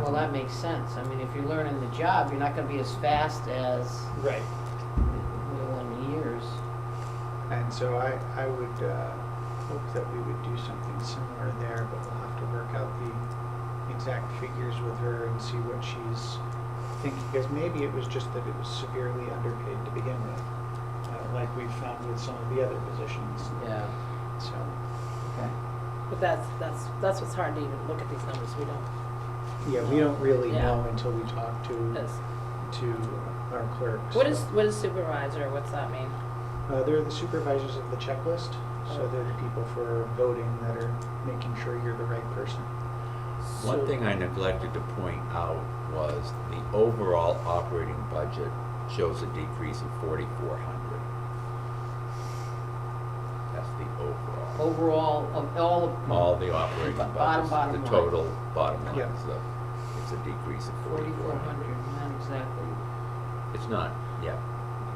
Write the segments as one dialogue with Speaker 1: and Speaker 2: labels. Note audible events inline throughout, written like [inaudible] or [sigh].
Speaker 1: Well, that makes sense. I mean, if you're learning the job, you're not gonna be as fast as
Speaker 2: Right.
Speaker 1: we will in years.
Speaker 3: And so I, I would uh, hope that we would do something similar there, but we'll have to work out the exact figures with her and see what she's thinking. Because maybe it was just that it was severely underpaid to begin with, uh, like we've found with some of the other positions.
Speaker 1: Yeah.
Speaker 3: So, okay.
Speaker 4: But that's, that's, that's what's hard to even look at these numbers, we don't,
Speaker 3: Yeah, we don't really
Speaker 4: Yeah.
Speaker 3: know until we talk to,
Speaker 4: that's-
Speaker 3: to our clerk.
Speaker 4: what is,
Speaker 3: so.
Speaker 4: what is supervisor, what's that mean?
Speaker 3: Uh, they're the supervisors of the checklist, so they're the people for voting that are making sure you're the right person.
Speaker 5: One thing I neglected to point out was the overall operating budget shows a decrease of forty-four hundred. That's the overall,
Speaker 1: Overall, of all of.
Speaker 5: all the operating
Speaker 1: Bottom, bottom
Speaker 5: budgets,
Speaker 1: line.
Speaker 5: the total bottom line
Speaker 3: Yeah.
Speaker 5: is a, it's a decrease of
Speaker 1: Forty-four
Speaker 5: forty-four
Speaker 1: hundred,
Speaker 5: hundred.
Speaker 1: not exactly.
Speaker 5: It's not, yeah,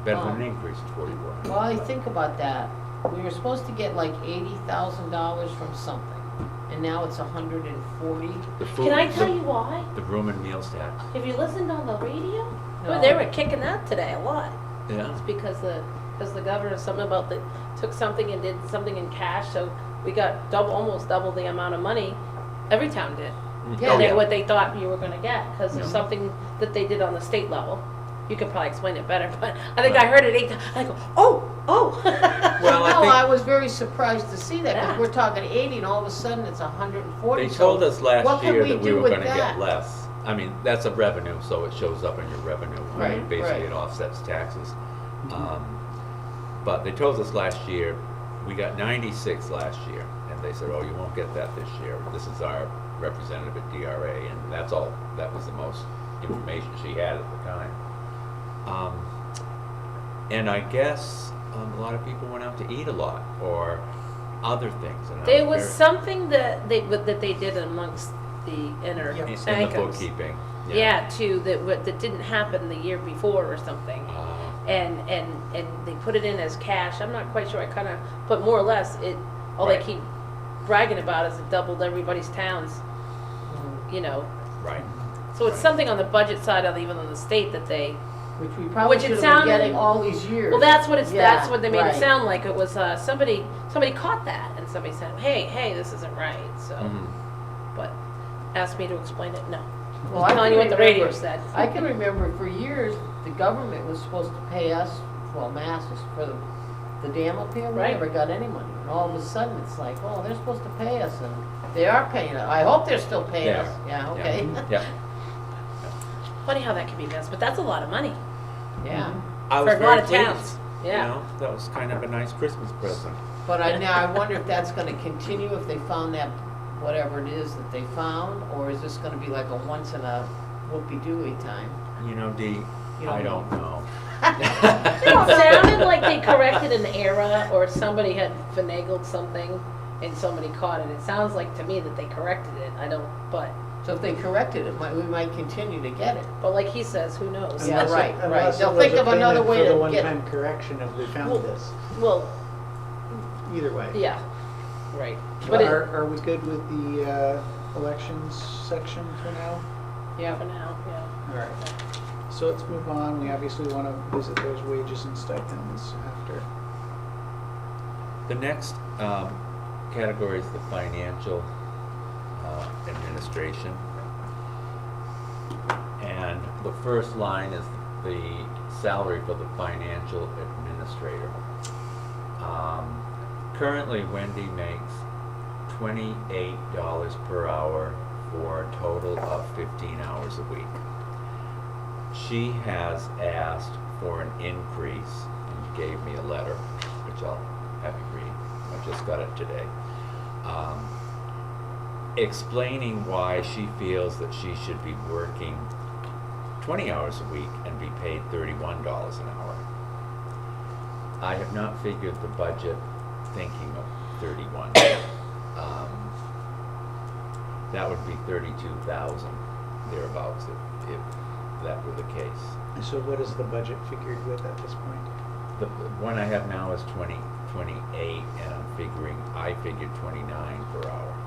Speaker 5: better than an
Speaker 1: Oh.
Speaker 5: increase of forty-four hundred.
Speaker 1: Well, I think about that. We were supposed to get like eighty thousand dollars from something, and now it's a hundred and forty.
Speaker 6: Can I tell you why?
Speaker 5: The room and meals tax,
Speaker 6: Have you listened on the radio?
Speaker 4: Well, they were kicking that today a lot,
Speaker 5: yeah,
Speaker 4: it's because the, because the governor, something about the, took something and did something in cash, so we got double, almost double the amount of money, every town did.
Speaker 5: Mm,
Speaker 1: Yeah,
Speaker 5: oh,
Speaker 4: They, what they thought you were gonna get, because
Speaker 5: Yeah.
Speaker 4: of something that they did on the state level. You could probably explain it better, [laughs] but I think I heard it eight, ti- I go, oh, oh. [laughs]
Speaker 5: Well, I
Speaker 1: No,
Speaker 5: think-
Speaker 1: I was very surprised to see that, because
Speaker 4: Yeah.
Speaker 1: we're talking eighty, and all of a sudden it's a hundred and forty.
Speaker 5: They told us
Speaker 1: what
Speaker 5: last
Speaker 1: can
Speaker 5: year
Speaker 1: we
Speaker 5: that we
Speaker 1: do
Speaker 5: were
Speaker 1: with
Speaker 5: gonna
Speaker 1: that?
Speaker 5: get less. I mean, that's a revenue, so it shows up in your revenue. I mean,
Speaker 1: Right,
Speaker 5: Basically,
Speaker 1: right.
Speaker 5: it offsets taxes. Um, But they told us last year, we got ninety-six last year, and they said, oh, you won't get that this year. This is our representative at DRA, and that's all, that was the most information she had at the time. Um, And I guess um, a lot of people went out to eat a lot, or other things. and I
Speaker 4: There was
Speaker 5: very-
Speaker 4: something that they, that they did amongst the inner
Speaker 5: in-
Speaker 4: sanctums.
Speaker 5: In the bookkeeping.
Speaker 4: Yeah, too, that, wa- that didn't happen the year before or something.
Speaker 5: Uh,
Speaker 4: And, and, and they put it in as cash, I'm not quite sure, I kinda, but more or less, it, all they
Speaker 5: Right.
Speaker 4: keep bragging about is it doubled everybody's towns, you know.
Speaker 5: Right.
Speaker 4: So it's
Speaker 5: Right.
Speaker 4: something on the budget side of even on the state that they,
Speaker 1: Which we probably
Speaker 4: Which it
Speaker 1: should have been
Speaker 4: sounded-
Speaker 1: getting all these years.
Speaker 4: well, that's what it's,
Speaker 1: Yeah,
Speaker 4: that's what they made it
Speaker 1: right.
Speaker 4: sound like, it was, uh, somebody, somebody caught that, and somebody said, hey, hey, this isn't right, so,
Speaker 5: Mhm.
Speaker 4: but asked me to explain it, no.
Speaker 1: Well, I
Speaker 4: telling
Speaker 1: can
Speaker 4: you what the radio
Speaker 1: remember-
Speaker 4: said.
Speaker 1: I can remember for years, the government was supposed to pay us, well, masses for the, the dam up here, we
Speaker 4: Right.
Speaker 1: never got any money. And all of a sudden, it's like, oh, they're supposed to pay us, and they are paying us, I hope they're still paying
Speaker 5: They
Speaker 1: us,
Speaker 5: are.
Speaker 1: yeah, okay, [laughs]
Speaker 5: Yeah.
Speaker 4: Funny how that can be missed, but that's a lot of money
Speaker 1: yeah.
Speaker 5: I
Speaker 4: for
Speaker 5: was
Speaker 4: a lot
Speaker 5: very
Speaker 4: of towns,
Speaker 5: pleased.
Speaker 4: yeah.
Speaker 5: You know, that was kind of a nice Christmas present.
Speaker 1: But I, now I wonder if that's gonna continue, if they found that, whatever it is that they found, or is this gonna be like a once in a whoopee-doo [laughs] time?
Speaker 5: You know, Dee,
Speaker 1: You
Speaker 5: I
Speaker 1: don't
Speaker 5: don't know.
Speaker 4: [laughs] It sounded like [laughs] they corrected an error or somebody had finagled something and somebody caught it. It sounds like to me that they corrected it. I don't, but,
Speaker 1: So if they corrected it, might, we might continue to get it.
Speaker 4: but like he says, who knows?
Speaker 1: Yeah,
Speaker 3: Unless it-
Speaker 1: right, right.
Speaker 3: unless it
Speaker 1: They'll
Speaker 3: was
Speaker 1: think
Speaker 3: a
Speaker 1: of another
Speaker 3: payment
Speaker 1: way to
Speaker 3: For
Speaker 1: get-
Speaker 3: the one-time correction of we
Speaker 4: Well-
Speaker 3: found this,
Speaker 4: Well,
Speaker 3: either way.
Speaker 4: yeah, right. But
Speaker 3: But
Speaker 4: it,
Speaker 3: are, are we good with the uh, elections section for now?
Speaker 4: yeah, for now, yeah.
Speaker 3: All right. So let's move on. We obviously want to visit those wages and stipends after.
Speaker 5: The next um, category is the financial uh, administration. And the first line is the salary for the financial administrator. Um, Currently Wendy makes twenty-eight dollars per hour for a total of fifteen hours a week. She has asked for an increase and gave me a letter, which I'll have you read. I just got it today. Um, explaining why she feels that she should be working 20 hours a week and be paid $31 an hour. I have not figured the budget thinking of 31. Um, that would be 32,000 thereabouts if, if that were the case.
Speaker 3: So what is the budget figured with at this point?
Speaker 5: The the one I have now is 20, 28, and I'm figuring, I figured 29 per hour.